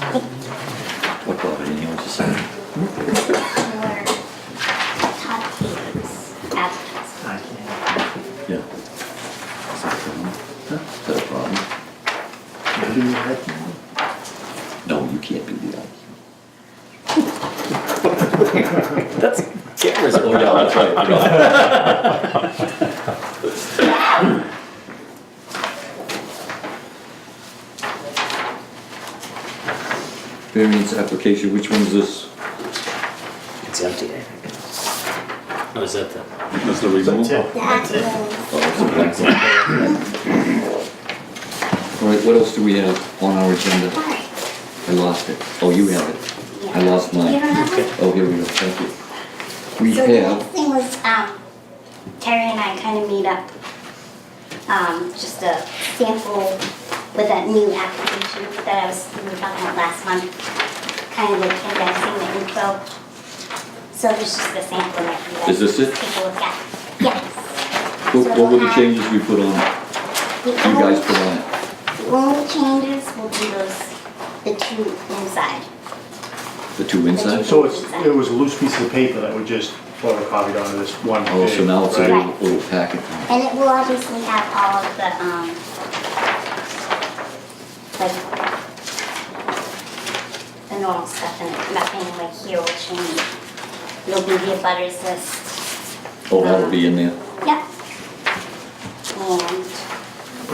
What about anything else to say? Or hot cakes, apples. I can't. Yeah. Is that a problem? Is that a problem? Do you have to? No, you can't be the ice. That's cameras. Oh, yeah, that's right. Variance application, which one is this? It's empty. Oh, is that the? That's the removal? The apples. Oh, it's a blank one. All right, what else do we have on our agenda? Alright, I lost it. Oh, you have it. I lost mine. You don't have one? Oh, here we go, thank you. We So the next have, thing was, um, Terry and I kind of meet up, um, just a sample with that new application that I was, we were talking about last month. Kind of like, have you guys seen the info? So there's just a sample that you guys. Is this it? Take a look at, yes. what So what were we'll the have- changes we put on, you the guys only- put on it? The only changes will be those, the two inside. The two inside? So it's, it was a loose piece of paper that we just photocopied onto this one Oh, so page, now it's a right? little, little packet. And it will obviously have all of the, um, like, the normal stuff in it, nothing like here will change. It'll be the butters list. Oh, that'll be in there. Yep. And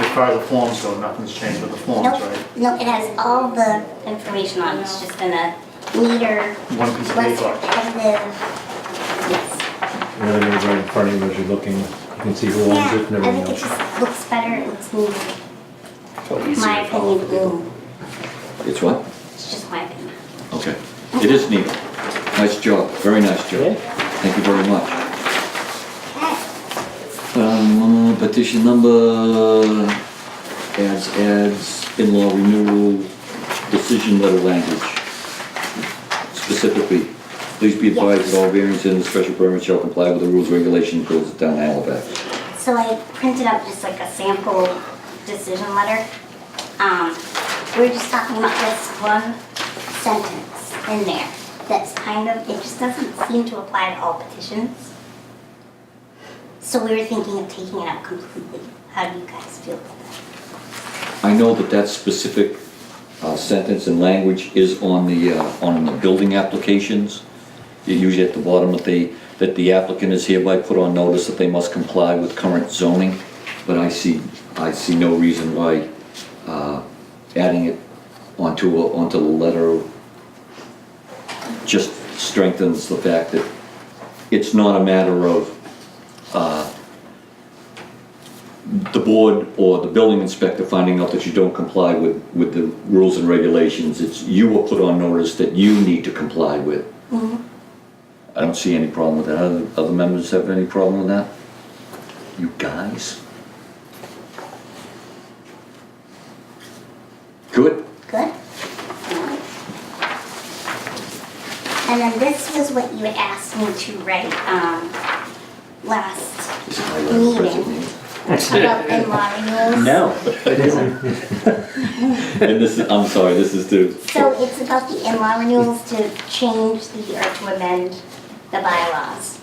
As far as the forms go, nothing's changed with the forms, Nope, right? no, it has all the information on it, it's just in a meter. One piece of less paper. repetitive. Yes. The other name's right in front of you as you're looking, you can see who owns Yeah, it and I everything think it else. just looks better, and it's neater, Probably easier my to follow opinion, for people. mm, It's what? it's just my opinion. Okay. It is neat. Nice job, very nice Yeah. job. Thank you very much. Okay. Um, petition number, adds, adds, in-law renewal, decision letter language. Specifically, please be advised that all variances and special permits shall comply with the rules, regulations, and codes of town of Halifax. So I printed up just like a sample decision letter. Um, we were just talking about this one sentence in there that's kind of, it just doesn't seem to apply to all petitions. So we were thinking of taking it out completely. How do you guys feel about that? I know that that specific uh, sentence and language is on the, uh, on the building applications. You Usually at the bottom that they, that the applicant is hereby put on notice that they must comply with current zoning. But I see, I see no reason why uh, adding it onto, a- onto the letter just strengthens the fact that it's not a matter of the board or the building inspector finding out that you don't comply with, with the rules and regulations, it's you were put on notice that you need to comply with. I don't see any problem with that. Other, other members have any problem with that? You guys? Good? Good? No? And then this was what you had asked me to write, um, last Is it my letter of present Meeting. meeting? about in-law renewals. No, it isn't. And this is, I'm sorry, this is to, So it's about the in-law renewals to change the, or to amend the bylaws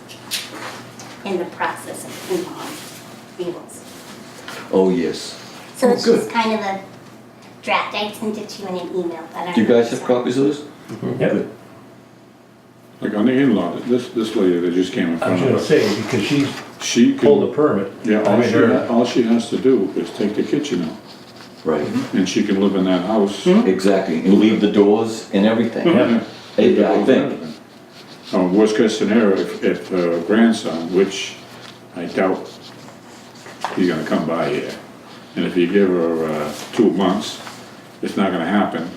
in the process of in-law renewals. oh, yes. So it's Good. just kind of a draft, I sent it to you in an email, but I don't. Do you guys have know. copies of this? Yep, Like on the in-law, this, this lady that just came in I was front gonna of us, say, because she's she pulled a can, permit. yeah, I all mean, she, her- ha- all she has to do is take the kitchen out, Right. and she can live in that house. Hmm? Exactly, and leave the doors and everything. Yeah. Yeah, I think. Uh, worst case scenario, if, if uh, grandson, which I doubt he's gonna come by here, and if you give her, uh, two months, it's not gonna happen.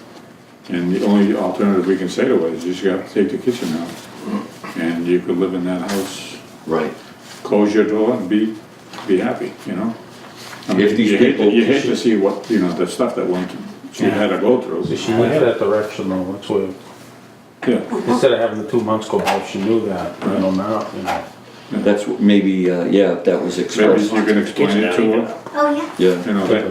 And the only alternative we can say to her is you just gotta take the kitchen out, and you could live in that house, Right. close your door and be, be happy, you know? I mean, If these you hate to- people- You hate to see what, you know, the stuff that went, she had to go through. She went that direction though, that's what, Yeah, instead of having the two months go by, she knew that, you know, now, you know. That's what, maybe, uh, yeah, if that was maybe expressed. you can explain it to her, Oh, yeah. Yeah. you know, that